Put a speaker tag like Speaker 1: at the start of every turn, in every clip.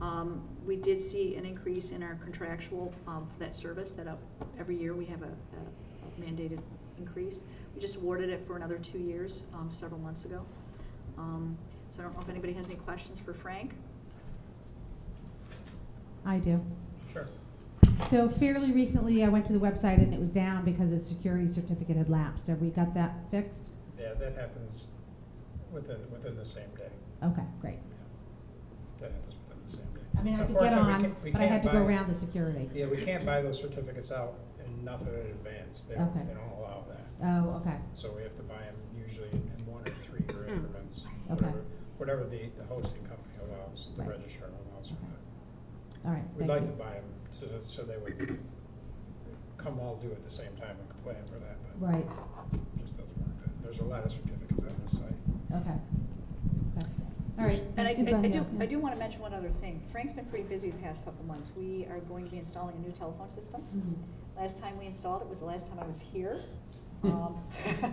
Speaker 1: Um, we did see an increase in our contractual, um, for that service, that up, every year we have a a mandated increase. We just awarded it for another two years, um, several months ago. Um, so I don't know if anybody has any questions for Frank?
Speaker 2: I do.
Speaker 3: Sure.
Speaker 2: So fairly recently, I went to the website and it was down because its security certificate had lapsed. Have we got that fixed?
Speaker 3: Yeah, that happens within, within the same day.
Speaker 2: Okay, great.
Speaker 3: That happens within the same day.
Speaker 2: I mean, I could get
Speaker 3: Unfortunately, we
Speaker 2: on,
Speaker 3: can't- we
Speaker 2: but I had
Speaker 3: can't
Speaker 2: to go
Speaker 3: buy-
Speaker 2: around the security.
Speaker 3: Yeah, we can't buy those certificates out enough of it in advance. They don't,
Speaker 2: Okay.
Speaker 3: they don't allow that.
Speaker 2: Oh, okay,
Speaker 3: So we have to buy them usually in one or three year increments.
Speaker 2: Okay.
Speaker 3: whatever- Whatever the, the hosting company allows, the
Speaker 2: Right.
Speaker 3: registrar allows. for
Speaker 2: Okay.
Speaker 3: that.
Speaker 2: all right.
Speaker 3: We'd
Speaker 2: thank
Speaker 3: like to
Speaker 2: you.
Speaker 3: buy them so, so they would come all due at the same time and complain for that, but
Speaker 2: Right,
Speaker 3: it just doesn't work. There's a lot of certificates on the site.
Speaker 2: okay. Okay. All right.
Speaker 1: And I,
Speaker 2: thank you
Speaker 1: I-
Speaker 2: for-
Speaker 1: I
Speaker 2: yeah,
Speaker 1: do, I
Speaker 2: yeah.
Speaker 1: do wanna mention one other thing. Frank's been pretty busy the past couple months. We are going to be installing a new telephone system.
Speaker 2: Mhm.
Speaker 1: Last time we installed it was the last time I was here. Um,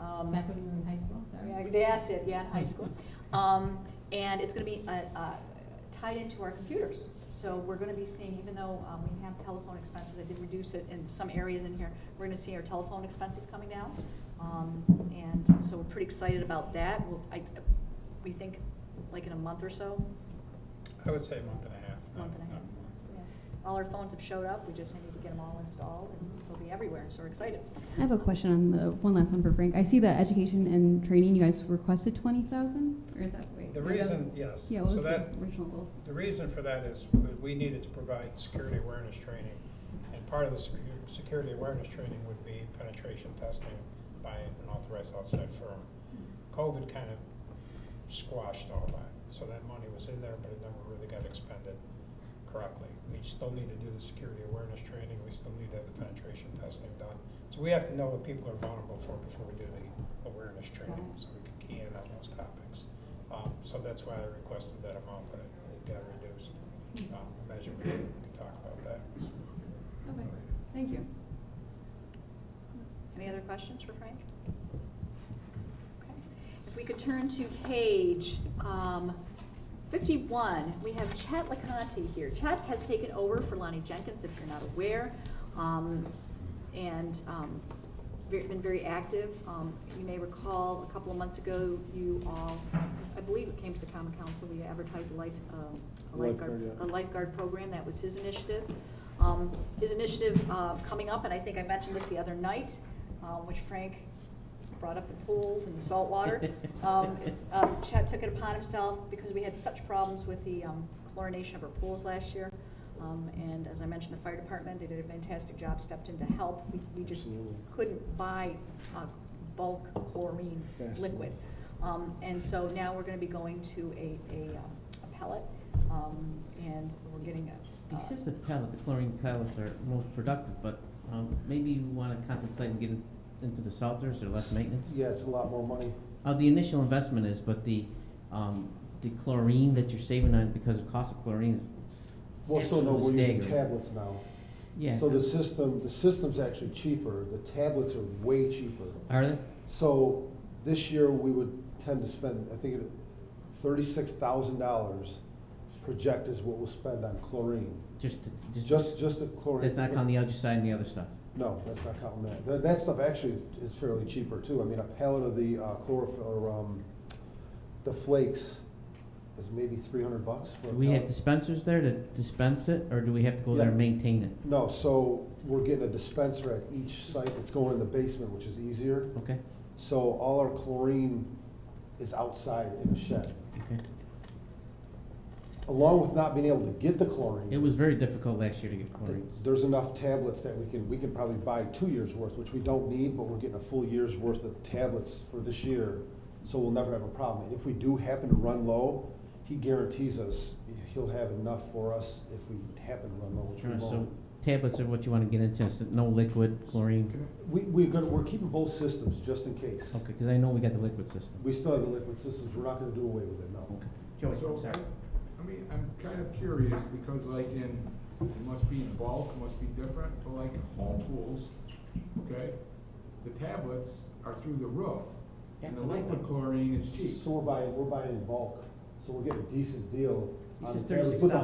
Speaker 1: um,
Speaker 2: Back when you were in high school,
Speaker 1: Yeah,
Speaker 2: sorry.
Speaker 1: that's it, yeah, in high school. Um, and it's gonna be, uh, uh, tied into our computers. So we're gonna be seeing, even though, um, we have telephone expenses, I did reduce it in some areas in here, we're gonna see our telephone expenses coming down. Um, and so we're pretty excited about that. We'll, I, we think like in a month or so,
Speaker 3: I would say a month and a half. not-
Speaker 1: Month and a half.
Speaker 3: not more.
Speaker 1: yeah, all our phones have showed up, we just need to get them all installed and they'll be everywhere, so we're excited.
Speaker 4: I have a question on the one last one for Frank. I see that education and training, you guys requested twenty thousand, or is that wait?
Speaker 3: The
Speaker 4: no, that was-
Speaker 3: reason, yes.
Speaker 4: Yeah, what
Speaker 3: So
Speaker 4: was the
Speaker 3: that-
Speaker 4: original goal?
Speaker 3: The reason for that is that we needed to provide security awareness training, and part of the secu- security awareness training would be penetration testing by an authorized outside firm. COVID kind of squashed all that, so that money was in there, but it never really got expended correctly. We still need to do the security awareness training, we still need to have the penetration testing done. So we have to know what people are vulnerable for before we do the awareness training, so we can key in on those topics. Um, so that's why I requested that amount, but it it got reduced. Um, imagine we can talk about that.
Speaker 4: Okay, thank you.
Speaker 1: Any other questions for Frank? Okay. If we could turn to page um, 51, we have Chet LaConte here. Chet has taken over for Lonnie Jenkins, if you're not aware, um, and um, ve- been very active. Um, You may recall, a couple of months ago, you all, I believe it came to the Common Council, we advertised a life, um, a lifeguard,
Speaker 5: Lifeguard,
Speaker 1: a
Speaker 5: yeah.
Speaker 1: lifeguard program, that was his initiative. Um, His initiative uh, coming up, and I think I mentioned this the other night, uh, which Frank brought up the pools and the saltwater. Um, uh, Chet took it upon himself, because we had such problems with the um, chlorination of our pools last year. Um, And as I mentioned, the fire department, they did a fantastic job, stepped in to help. We- We just
Speaker 5: Absolutely.
Speaker 1: couldn't buy uh, bulk chlorine
Speaker 5: Yes.
Speaker 1: liquid. Um, And so now we're gonna be going to a, a um, a pellet, um, and we're getting a.
Speaker 6: He
Speaker 1: uh,
Speaker 6: says the pellet, the chlorine pellets are most productive, but um, maybe you want to contemplate and get in- into the salters or less maintenance?
Speaker 5: Yeah, it's a lot more money.
Speaker 6: Uh, The initial investment is, but the, um, the chlorine that you're saving on because of cost of chlorine is s-
Speaker 5: Well, so no, we're
Speaker 6: absolutely
Speaker 5: using
Speaker 6: staggering.
Speaker 5: tablets now.
Speaker 6: Yeah.
Speaker 5: So the system, the system's actually cheaper, the tablets are way cheaper.
Speaker 6: Are they?
Speaker 5: So this year, we would tend to spend, I think, thirty-six thousand dollars project is what we'll spend on chlorine.
Speaker 6: Just, to-
Speaker 5: Just, just the chlorine.
Speaker 6: That's not on the other side and the other stuff.
Speaker 5: No, that's not counting that. That, that stuff actually is fairly cheaper too. I mean, a pallet of the uh, chlorophyll, or, um, the flakes is maybe three hundred bucks for a
Speaker 6: Do we have
Speaker 5: pallet.
Speaker 6: dispensers there to dispense it, or do we have to go there and
Speaker 5: Yeah.
Speaker 6: maintain it?
Speaker 5: No, so we're getting a dispenser at each site. It's going in the basement, which is easier.
Speaker 6: Okay,
Speaker 5: So all our chlorine is outside in a shed.
Speaker 6: okay.
Speaker 5: Along with not being able to get the chlorine.
Speaker 6: It was very difficult last year to get
Speaker 5: th-
Speaker 6: chlorine.
Speaker 5: There's enough tablets that we can, we can probably buy two years' worth, which we don't need, but we're getting a full year's worth of tablets for this year. So we'll never have a problem. If we do happen to run low, he guarantees us he'll have enough for us if we happen to run low, which we
Speaker 6: Sure, So
Speaker 5: won't.
Speaker 6: tablets are what you want to get into, so no liquid chlorine?
Speaker 5: We, we're gonna, we're keeping both systems just in case.
Speaker 6: Okay, because I know we got the liquid system.
Speaker 5: We still have the liquid systems, we're not gonna do away with it, no.
Speaker 6: Joey,
Speaker 7: So,
Speaker 6: sorry.
Speaker 7: I mean, I'm kind of curious, because like in, it must be in bulk, it must be different, but like home pools, okay? The tablets are through the roof, and the
Speaker 6: That's what I
Speaker 7: liquid
Speaker 6: thought.
Speaker 7: chlorine is cheap.
Speaker 5: So we're buying, we're buying in bulk, so we're getting a decent deal.
Speaker 6: He
Speaker 5: on
Speaker 6: says
Speaker 5: the tablets, but the